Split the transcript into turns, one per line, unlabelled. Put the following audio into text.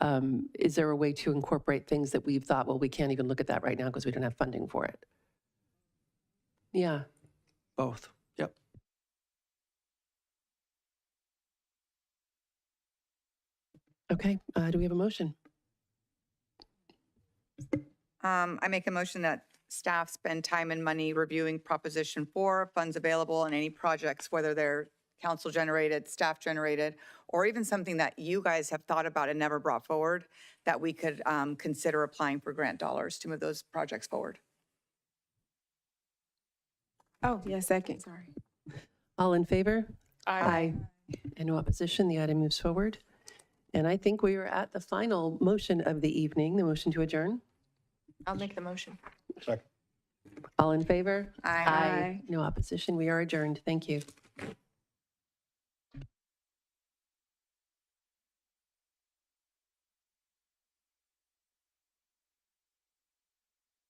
um, is there a way to incorporate things that we've thought, well, we can't even look at that right now because we don't have funding for it? Yeah,
Both. Yep.
okay. Uh, Do we have a motion?
Um, I make a motion that staff spend time and money reviewing Proposition 4, funds available and any projects, whether they're council-generated, staff-generated, or even something that you guys have thought about and never brought forward, that we could um, consider applying for grant dollars to move those projects forward.
Oh, yeah, second.
Sorry.
All in favor? Aye. And no opposition, the item moves forward. And I think we are at the final motion of the evening, the motion to adjourn.
I'll make the motion.
All in favor?
Aye.
Aye.
No opposition, we are adjourned. Thank you.